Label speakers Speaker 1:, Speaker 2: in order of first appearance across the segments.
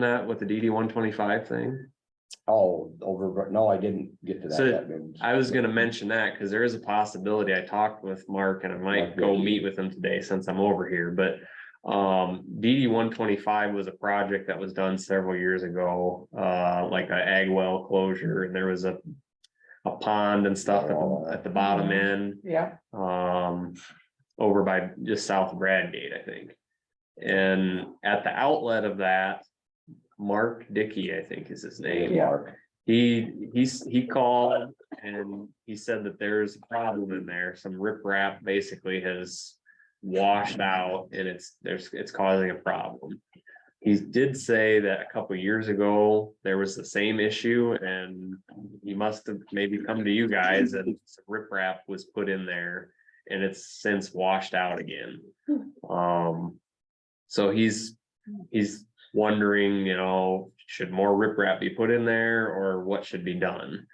Speaker 1: that with the DD one twenty-five thing?
Speaker 2: Oh, over, no, I didn't get to that.
Speaker 1: So,
Speaker 2: that means-
Speaker 1: I was gonna mention that, cause there is a possibility, I talked with Mark and I might go meet with him today since I'm over here, but. Um, DD one twenty-five was a project that was done several years ago, uh, like a ag well closure, and there was a. A pond and stuff at the, at the bottom end.
Speaker 3: Yeah.
Speaker 1: um, over by just south of Bradgate, I think. And at the outlet of that, Mark Dickey, I think is his name.
Speaker 3: Yeah.
Speaker 2: Mark.
Speaker 1: He, he's, he called and he said that there's a problem in there. Some riprap basically has washed out and it's, there's, it's causing a problem. He did say that a couple years ago, there was the same issue and he must have maybe come to you guys and some riprap was put in there and it's since washed out again. Um, so he's, he's wondering, you know, should more riprap be put in there or what should be done?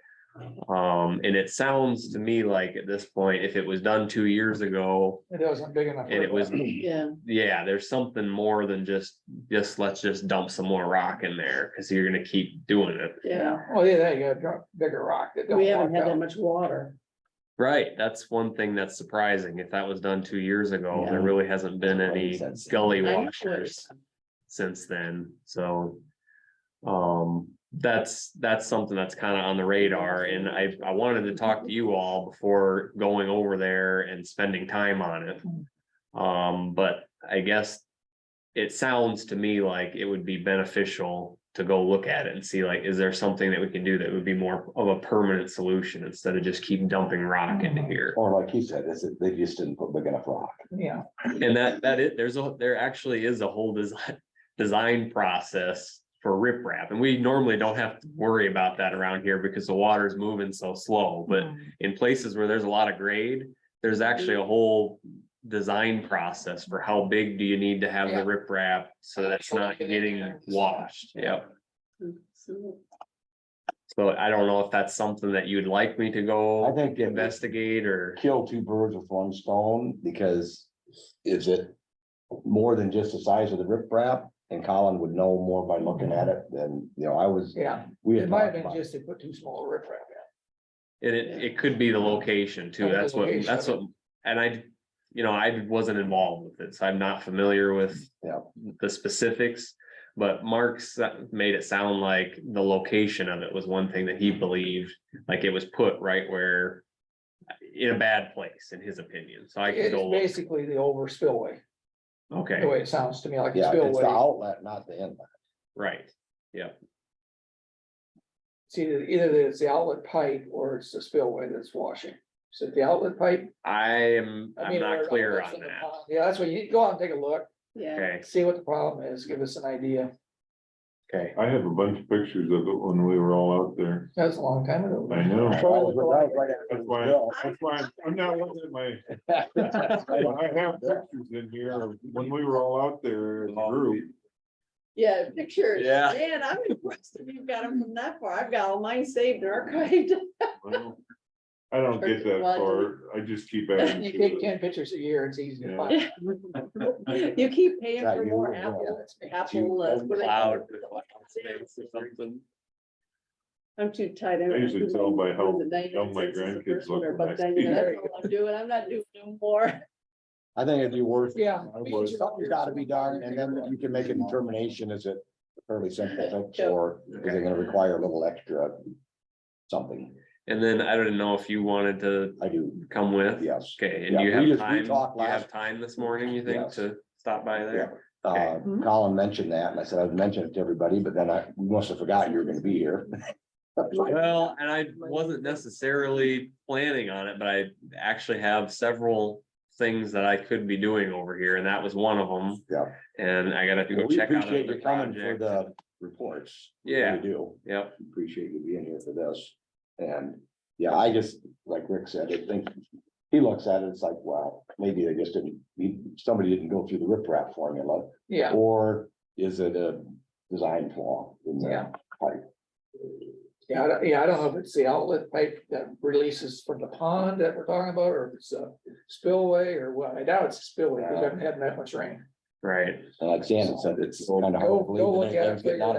Speaker 1: Um, and it sounds to me like at this point, if it was done two years ago
Speaker 3: It wasn't big enough.
Speaker 1: and it was,
Speaker 4: Yeah,
Speaker 1: yeah, there's something more than just, just let's just dump some more rock in there because you're gonna keep doing it.
Speaker 4: yeah.
Speaker 3: Oh, yeah, there you go, drop bigger rock. that don't
Speaker 4: We haven't
Speaker 3: walk
Speaker 4: had that
Speaker 3: out.
Speaker 4: much water.
Speaker 1: Right, that's one thing that's surprising. If that was done two years ago, there
Speaker 2: Yeah.
Speaker 1: really hasn't been
Speaker 2: Like
Speaker 1: any
Speaker 2: since-
Speaker 1: gully
Speaker 4: I know
Speaker 1: washers. since then, so. Um, that's, that's something that's kind of on the radar and I, I wanted to talk to you all before going over there and spending time on it. Um, but I guess. It sounds to me like it would be beneficial to go look at it and see like, is there something that we can do that would be more of a permanent solution instead of just keep dumping rock into here?
Speaker 2: Or like you said, is it, they just didn't put big enough rock.
Speaker 3: Yeah,
Speaker 1: And that, that it, there's a, there actually is a whole design, design process for riprap, and we normally don't have to worry about that around here because the water's moving so slow, but
Speaker 4: Mm.
Speaker 1: in places where there's a lot of grade, there's actually a whole design process for how big do you need to have the
Speaker 3: Yeah.
Speaker 1: riprap, so that's not getting washed, yep.
Speaker 4: Mm,
Speaker 1: So I don't know if that's something that you'd like me to
Speaker 2: I
Speaker 1: go
Speaker 2: think it would
Speaker 1: investigate or,
Speaker 2: kill two birds with one stone because is it more than just the size of the riprap? And Colin would know more by looking at it than, you know, I was,
Speaker 3: yeah.
Speaker 2: we
Speaker 3: It
Speaker 2: had
Speaker 3: might have
Speaker 2: talked
Speaker 3: been
Speaker 2: about.
Speaker 3: just they put too small a riprap
Speaker 1: and it, it could be the location too,
Speaker 3: And the
Speaker 1: that's what,
Speaker 3: location.
Speaker 1: that's what, and I, you know, I wasn't involved with it, so I'm not familiar with
Speaker 2: Yeah.
Speaker 1: the specifics, but Mark's made it sound like the location of it was one thing that he believed, like it was put right where in a bad place, in his opinion, so I
Speaker 3: in.
Speaker 1: could go,
Speaker 3: It's
Speaker 1: look.
Speaker 3: basically the over spillway, the
Speaker 1: okay,
Speaker 3: way it sounds to me, like a
Speaker 2: Yeah, it's the
Speaker 3: spillway.
Speaker 2: outlet, not the inlet.
Speaker 1: right,
Speaker 3: It's either, either it's the outlet pipe or it's the spillway that's washing. So the outlet pipe.
Speaker 1: I am,
Speaker 3: I
Speaker 1: I'm
Speaker 3: mean, or
Speaker 1: not
Speaker 3: it
Speaker 1: clear
Speaker 3: outlets
Speaker 1: on
Speaker 3: in the
Speaker 1: that,
Speaker 3: pond. Yeah, that's what you, go out and take a look,
Speaker 4: Yeah,
Speaker 1: okay,
Speaker 3: see what the problem is, give us an idea.
Speaker 1: okay.
Speaker 5: I have a bunch of pictures of it when we were all out there.
Speaker 3: That's a long time ago.
Speaker 5: I know.
Speaker 2: That was right- that was right after
Speaker 5: That's
Speaker 2: the
Speaker 5: why,
Speaker 2: spill.
Speaker 5: that's why I'm- I'm not looking at my, I have pictures in here of when we were all out there as a group.
Speaker 4: yeah, pictures.
Speaker 1: Yeah.
Speaker 4: Man, I'm impressed if you've got them from that far. I've got all mine saved and archived.
Speaker 5: Well, I don't get that far. I just keep adding
Speaker 3: You
Speaker 5: to
Speaker 3: take
Speaker 5: it.
Speaker 3: ten pictures a year, it's easy to
Speaker 5: Yeah.
Speaker 3: find.
Speaker 4: You keep paying
Speaker 2: Yeah,
Speaker 4: for
Speaker 2: you
Speaker 4: more
Speaker 2: will.
Speaker 4: Apple, Apple. uh, what do they call
Speaker 1: Cloud.
Speaker 4: it?
Speaker 1: Something.
Speaker 4: I'm too tight.
Speaker 5: I usually tell by how young my grandkids look when I
Speaker 4: But then,
Speaker 5: see
Speaker 4: that's
Speaker 3: it.
Speaker 4: all I'm doing. I'm not doing no more.
Speaker 2: I think it'd be worth.
Speaker 3: Yeah.
Speaker 2: I would. Something's gotta be done, and then you can make a determination, is it fairly simple,
Speaker 4: Yeah.
Speaker 2: or is it gonna require a little extra? Something,
Speaker 1: And then I don't know if you wanted to
Speaker 2: I do,
Speaker 1: come with,
Speaker 2: yes.
Speaker 1: okay,
Speaker 2: Yeah,
Speaker 1: and you
Speaker 2: we
Speaker 1: have
Speaker 2: just- we
Speaker 1: time,
Speaker 2: talked
Speaker 1: you have
Speaker 2: last-
Speaker 1: time this morning, you think,
Speaker 2: Yes.
Speaker 1: to stop by there?
Speaker 2: Uh, Colin mentioned that, and I said I'd mention it to everybody, but then I you must have forgotten you were gonna be here.
Speaker 1: Well, and I wasn't necessarily planning on it, but I actually have several things that I could be doing over here, and that was one of them.
Speaker 2: Yeah.
Speaker 1: And I gotta go
Speaker 2: We
Speaker 1: check out
Speaker 2: appreciate
Speaker 1: another
Speaker 2: you coming for
Speaker 1: project.
Speaker 2: the reports. We
Speaker 1: Yeah.
Speaker 2: Do,
Speaker 1: Yep,
Speaker 2: appreciate you being here for this, and, yeah, I just, like Rick said, I think. He looks at it, it's like, wow, maybe they just didn't, somebody didn't go through the riprap formula.
Speaker 3: Yeah,
Speaker 2: Or is it a design flaw in
Speaker 3: Yeah.
Speaker 2: there?
Speaker 3: yeah, I don't- yeah, I don't know if it's the outlet pipe that releases from the pond that we're talking about, or if it's a spillway or what, I doubt it's a spillway, because I haven't had that much rain.
Speaker 1: right?
Speaker 2: And like Shannon said, it's kind of. hard to
Speaker 3: Go-
Speaker 2: believe
Speaker 3: go
Speaker 2: that
Speaker 3: look at it,
Speaker 2: everything's getting
Speaker 3: figure
Speaker 2: out
Speaker 3: it
Speaker 2: of